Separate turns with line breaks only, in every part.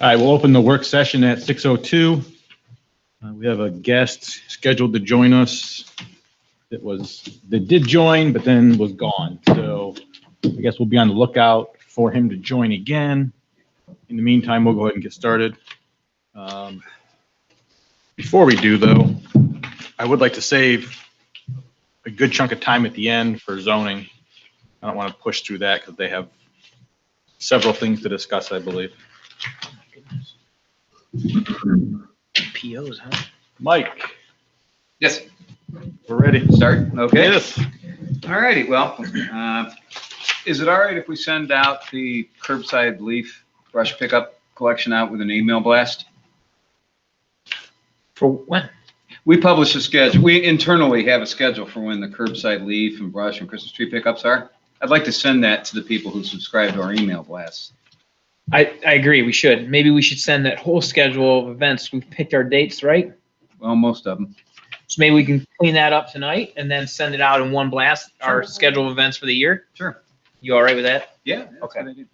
All right, we'll open the work session at 6:02. Uh, We have a guest scheduled to join us that was, that did join, but then was gone. So I guess we'll be on the lookout for him to join again. In the meantime, we'll go ahead and get started. Um, Before we do, though, I would like to save a good chunk of time at the end for zoning. I don't want to push through that because they have several things to discuss, I believe.
POs, huh?
Mike,
Yes,
we're ready.
start, okay.
Yes.
All righty, well, uh, is it all right if we send out the curbside leaf brush pickup collection out with an email blast?
For what?
We publish a schedule, we internally have a schedule for when the curbside leaf and brush and Christmas tree pickups are. I'd like to send that to the people who subscribe to our email blasts.
I, I agree, we should. Maybe we should send that whole schedule of events. We've picked our dates, right?
Well, most of them.
So maybe we can clean that up tonight and then send it out in one blast, our schedule of events for the year.
Sure.
You all right with that?
Yeah. that's
Okay.
what I did.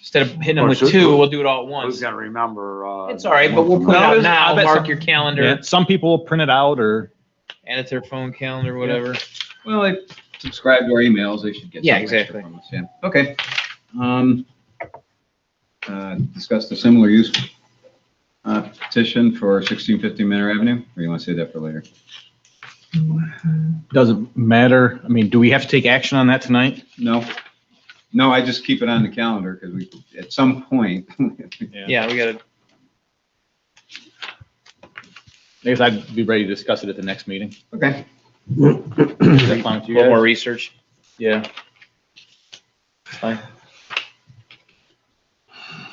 Instead of hitting
Oh,
them
Or
with
should-
two, we'll do it all at
Who's
once.
gonna remember? uh,
It's all right, but we'll put it
No,
out
there's-
now.
I bet
Mark
some-
your
Yeah,
calendar,
some people will print it out or,
add it to their phone calendar, whatever.
Well, they subscribe to our emails, they should get.
Yeah,
some extra
exactly.
from us, Yeah, okay. Um, uh, Discuss the similar use uh, petition for 1650 Manor Avenue, or you want to say that for later?
doesn't matter. I mean, do we have to take action on that tonight?
No, no, I just keep it on the calendar because we, at some point,
Yeah, we gotta,
I guess I'd be ready to discuss it at the next meeting.
okay.
Is that fine with
a
you
little more
guys?
research.
Yeah.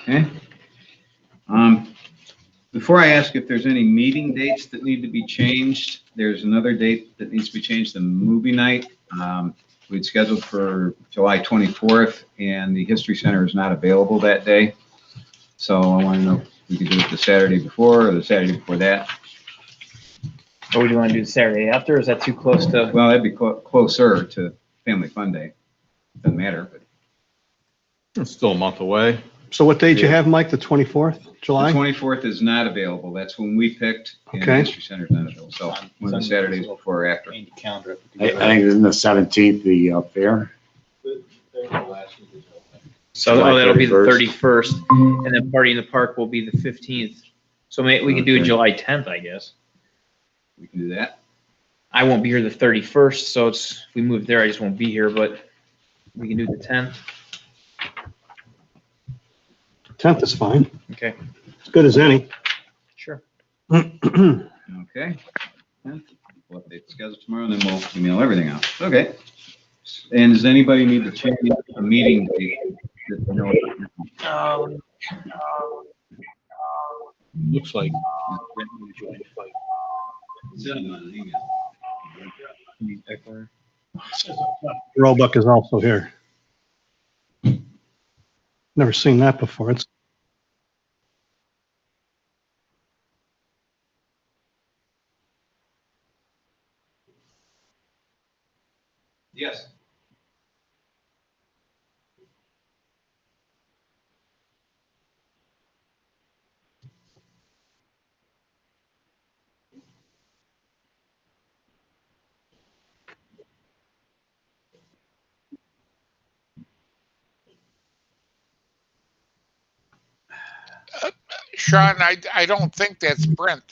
Okay. Um, Before I ask if there's any meeting dates that need to be changed, there's another date that needs to be changed, the movie night. Um, We'd scheduled for July 24th, and the History Center is not available that day. So I want to know if we could do it the Saturday before or the Saturday before that.
Or would you wanna do the Saturday after? or Is that too close to?
Well, that'd be clo- closer to Family Fun Day. Doesn't matter, but
It's still a month away.
So what date you have, Mike? The 24th,
the
July?
24th is not available. That's when we picked, and the
Okay.
History Center's not available. So one of the Saturdays before or after.
Calendar.
I I think isn't the seventeenth the uh, fair?
So
July
oh, that'll be the
31st.
thirty-first, and then Party in the Park will be the fifteenth. So may, we could do it
Okay.
July tenth, I guess.
We can do that.
I won't be here the thirty-first, so it's, if we move there, I just won't be here, but we can do the tenth.
10th is fine.
Okay.
As good as any.
Sure.
Okay. Yeah, We'll update the schedule tomorrow, and then we'll email everything out. Okay. And does anybody need to change the meeting date?
Looks like.
Roebuck is also here. Never seen that before. It's
Yes.
Sean, I, I don't think that's Brent.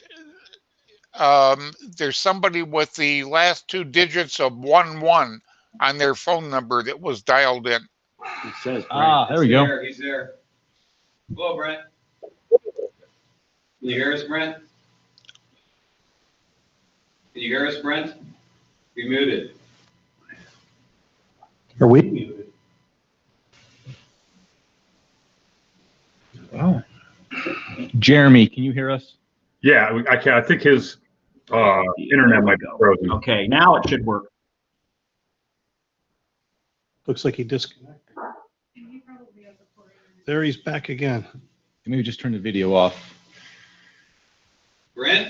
Um, there's somebody with the last two digits of one one on their phone number that was dialed in.
It says.
Ah, there we go.
He's there. Hello, Brent. Can you hear us, Brent? Can you hear us, Brent? You muted.
Are we?
Wow.
Jeremy, can you hear us?
Yeah, I can, I think his, uh, internet might be frozen.
Okay, now it should work.
Looks like he disconnected. There he's back again.
Maybe just turn the video off.
Brent?